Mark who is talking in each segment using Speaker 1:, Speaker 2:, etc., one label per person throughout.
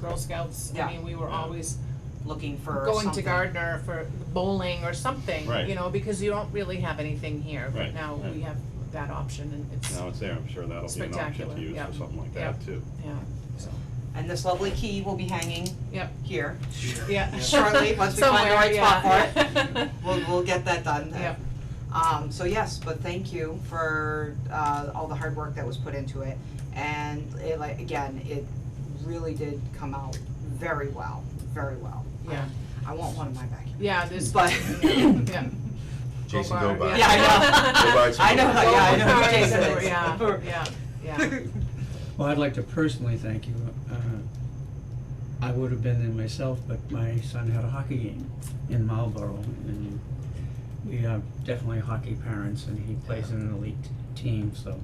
Speaker 1: Girl Scouts,
Speaker 2: Yeah.
Speaker 1: I mean, we were
Speaker 3: Yeah.
Speaker 1: always
Speaker 2: looking for
Speaker 1: going to
Speaker 2: something.
Speaker 1: Gardner for bowling or something,
Speaker 3: Right.
Speaker 1: you know, because you don't really have anything here, but
Speaker 3: Right,
Speaker 1: now
Speaker 3: right.
Speaker 1: we have that option and it's,
Speaker 3: Now it's there, I'm sure that'll be an option
Speaker 1: Spectacular,
Speaker 3: to use
Speaker 1: yeah.
Speaker 3: for something like
Speaker 1: Yeah.
Speaker 3: that too.
Speaker 1: yeah, so,
Speaker 2: And this lovely key will be hanging
Speaker 1: yep,
Speaker 2: here.
Speaker 1: yeah.
Speaker 2: Shortly, once we find the right spot for
Speaker 1: Somewhere, yeah.
Speaker 2: We'll, we'll get that done.
Speaker 1: Yep.
Speaker 2: Um, so yes, but thank you for, uh, all the hard work that was put into it. And it like, again, it really did come out very well, very well.
Speaker 1: Yeah.
Speaker 2: I want one in my backyard.
Speaker 1: Yeah, there's,
Speaker 2: But-
Speaker 1: yeah.
Speaker 4: Jason,
Speaker 1: Go
Speaker 4: go
Speaker 1: Bar-
Speaker 4: by.
Speaker 1: yeah, I
Speaker 2: know.
Speaker 4: Go buy some.
Speaker 2: I know,
Speaker 4: Go
Speaker 2: yeah, I
Speaker 4: buy
Speaker 2: know
Speaker 4: some.
Speaker 2: who
Speaker 1: Sorry,
Speaker 2: Jason
Speaker 1: so,
Speaker 2: is.
Speaker 1: Yeah, yeah, yeah,
Speaker 5: Well, I'd like to personally thank you. Uh, I would have been there myself, but my son had a hockey game in Marlboro, and we are definitely hockey parents, and he plays in an elite team, so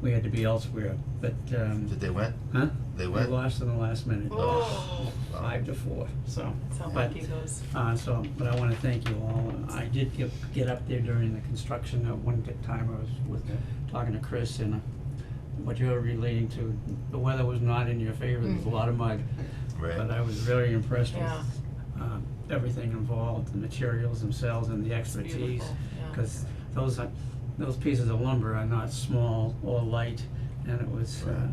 Speaker 5: we had to be elsewhere. But um,
Speaker 4: Did they win?
Speaker 5: huh?
Speaker 4: They
Speaker 5: We
Speaker 4: win?
Speaker 5: lost in the last minute,
Speaker 1: oh,
Speaker 5: five to four. So,
Speaker 1: that's how
Speaker 5: but
Speaker 1: lucky goes,
Speaker 5: uh, so, but I wanna thank you all. I did get, get up there during the construction at one t- time, I was with, talking to Chris and uh, what you're relating to, the weather was not in your favor, there was
Speaker 1: Mm-hmm.
Speaker 5: a lot of mud. But
Speaker 4: Right.
Speaker 5: I was very impressed with,
Speaker 1: yeah,
Speaker 5: um, everything involved, the materials themselves and the
Speaker 1: it's
Speaker 5: expertise.
Speaker 1: beautiful, yeah.
Speaker 5: Cause those, are- those pieces of lumber are not small or light, and it was, uh,
Speaker 4: Right.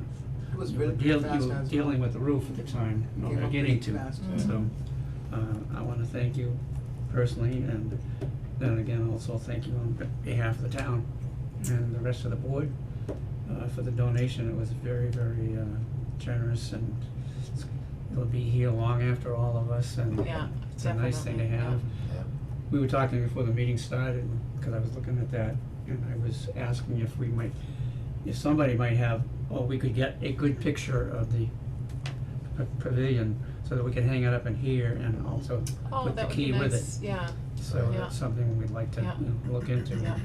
Speaker 6: It was
Speaker 5: you were
Speaker 6: really
Speaker 5: deal-
Speaker 6: fast
Speaker 5: you were
Speaker 6: as
Speaker 5: dealing with the roof at the time, you know,
Speaker 6: Came up
Speaker 5: getting
Speaker 6: pretty
Speaker 5: to.
Speaker 6: fast.
Speaker 1: Mm-hmm.
Speaker 5: So, uh, I wanna thank you personally, and then again, also thank you on be- behalf of the town and the rest of the board, uh, for the donation, it was very, very, uh, generous, and it's- it'll be here long after all of us, and
Speaker 1: Yeah,
Speaker 5: it's a nice thing to
Speaker 1: definitely, yeah.
Speaker 5: have. We were talking before the meeting started, cause I was looking at that, and I was asking if we might, if somebody might have, or we could get a good picture of the p- pavilion, so that we could hang it up in here and also
Speaker 1: Oh,
Speaker 5: put the
Speaker 1: that would
Speaker 5: key
Speaker 1: be
Speaker 5: with it.
Speaker 1: nice, yeah,
Speaker 5: So
Speaker 1: Yeah.
Speaker 5: that's something we'd like to
Speaker 1: Yeah.
Speaker 5: you know, look into.
Speaker 1: Yeah.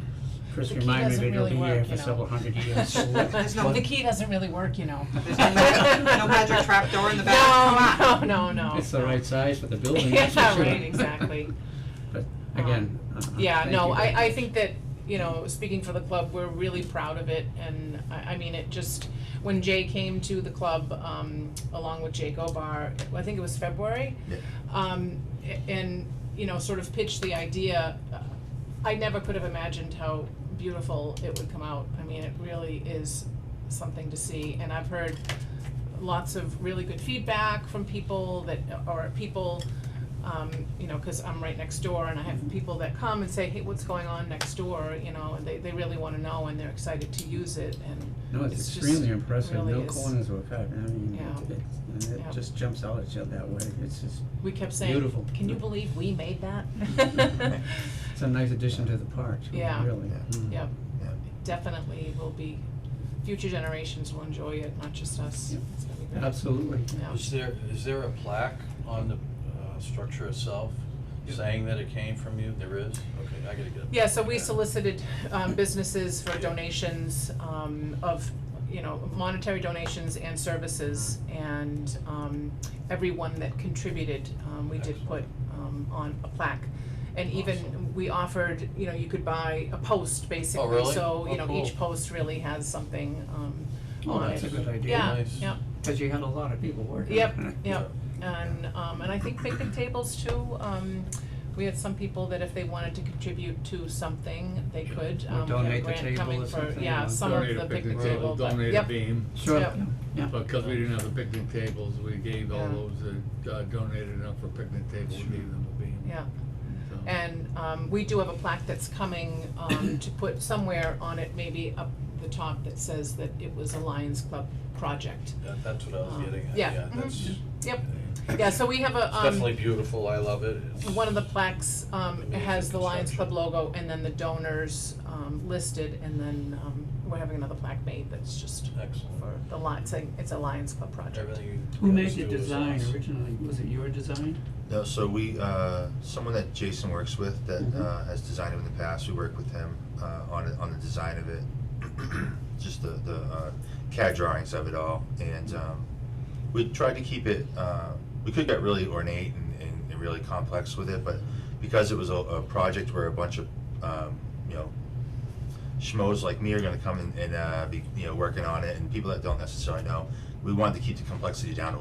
Speaker 5: Chris
Speaker 1: The key
Speaker 5: reminded
Speaker 1: doesn't
Speaker 5: me it'll
Speaker 1: really
Speaker 5: be here
Speaker 1: work, you
Speaker 5: for
Speaker 1: know.
Speaker 5: several hundred years.
Speaker 2: There's no-
Speaker 1: The key doesn't really work, you know.
Speaker 2: There's no magic- no magic trap door in the back, come on.
Speaker 1: No, no, no, no.
Speaker 5: It's the right size for the building, that's for
Speaker 1: Yeah,
Speaker 5: sure.
Speaker 1: right, exactly.
Speaker 5: But
Speaker 1: Um,
Speaker 5: again, uh,
Speaker 1: Yeah,
Speaker 5: thank
Speaker 1: no,
Speaker 5: you very
Speaker 1: I, I
Speaker 5: much.
Speaker 1: think that, you know, speaking for the club, we're really proud of it, and I, I mean, it just, when Jay came to the club, um, along with Jake Obar, I think it was February.
Speaker 4: Yeah.
Speaker 1: Um, a- and, you know, sort of pitched the idea, uh, I never could have imagined how beautiful it would come out, I mean, it really is something to see, and I've heard lots of really good feedback from people that, or people, um, you know, cause I'm right next door and I have people that come and say, hey, what's going on next door, you know, and they, they really wanna know and they're excited to use it and,
Speaker 5: No, it's
Speaker 1: it's just
Speaker 5: extremely impressive,
Speaker 1: really
Speaker 5: no
Speaker 1: is.
Speaker 5: corners were cut, I mean,
Speaker 1: Yeah.
Speaker 5: it, it, and
Speaker 1: Yeah.
Speaker 5: it just jumps out at you that way, it's just,
Speaker 1: we kept saying,
Speaker 5: Beautiful.
Speaker 1: can you believe we made that?
Speaker 5: it's a nice addition to the park, too, really.
Speaker 1: Yeah.
Speaker 4: Yeah.
Speaker 5: Mm.
Speaker 1: Yep,
Speaker 4: Yeah.
Speaker 1: definitely will be, future generations will enjoy it, not just us,
Speaker 5: Yep.
Speaker 1: it's gonna be great.
Speaker 5: Absolutely.
Speaker 1: Yeah.
Speaker 7: Is there, is there a plaque on the uh, structure itself saying that it came from you? There is? Okay, I gotta get it.
Speaker 1: Yeah, so we solicited um businesses for donations um of, you know, monetary donations and services and um everyone that contributed, um we did put um on a plaque. And even,
Speaker 7: Awesome.
Speaker 1: we offered, you know, you could buy a post basically,
Speaker 7: really?
Speaker 1: so, you
Speaker 7: Oh,
Speaker 1: know,
Speaker 7: cool.
Speaker 1: each post really has something um
Speaker 5: Oh,
Speaker 1: on it.
Speaker 5: that's a good idea.
Speaker 1: Yeah,
Speaker 7: Nice.
Speaker 1: yeah,
Speaker 5: Cause you had a lot of people working.
Speaker 1: Yep,
Speaker 5: on it.
Speaker 1: yeah, and, um, and I think picnic tables too, um, we had some people that if they wanted to contribute to something, they could,
Speaker 5: Or
Speaker 1: um, we have a
Speaker 5: donate the
Speaker 1: grant
Speaker 5: table
Speaker 1: coming
Speaker 5: or
Speaker 1: for,
Speaker 5: something,
Speaker 1: yeah,
Speaker 5: or
Speaker 1: some of the picnic table, but,
Speaker 8: Donate a
Speaker 1: yep,
Speaker 8: beam,
Speaker 5: Sure,
Speaker 1: Yep.
Speaker 5: yeah,
Speaker 8: but because we didn't have the picnic tables, we gave all
Speaker 1: Yeah.
Speaker 8: those that uh, donated enough for picnic tables, we gave them a beam,
Speaker 1: yeah,
Speaker 8: so.
Speaker 1: and, um, we do have a plaque that's coming, um, to put somewhere on it, maybe up the top that says that it was a Lions Club project.
Speaker 7: That- That's what I was
Speaker 1: Um,
Speaker 7: getting at,
Speaker 1: yeah,
Speaker 7: yeah,
Speaker 1: mhm.
Speaker 7: that's, it's
Speaker 1: Yep, yeah, so we have a, um,
Speaker 7: definitely beautiful, I love it. It's-
Speaker 1: One of the plaques um
Speaker 7: Amazing
Speaker 1: has the Lions Club
Speaker 7: conception.
Speaker 1: logo and then the donors um listed and then um we're having another plaque made that's just
Speaker 7: Excellent.
Speaker 1: for the Lions, saying it's a Lions Club project.
Speaker 7: Everything you.
Speaker 5: Who made
Speaker 7: guys
Speaker 5: the
Speaker 7: do is
Speaker 5: design
Speaker 7: awesome.
Speaker 5: originally, was it your design?
Speaker 4: No, so we, uh, someone that Jason works with that
Speaker 5: Mhm.
Speaker 4: uh, has designed it in the past, we work with him uh, on it, on the design of it, just the the uh, CAD drawings of it all, and um, we tried to keep it. Uh, we could get really ornate and, and, and really complex with it, but because it was a, a project where a bunch of um, you know schmoes like me are going to come in and uh, be you know working on it, and people that don't necessarily know, we wanted to keep the complexity down a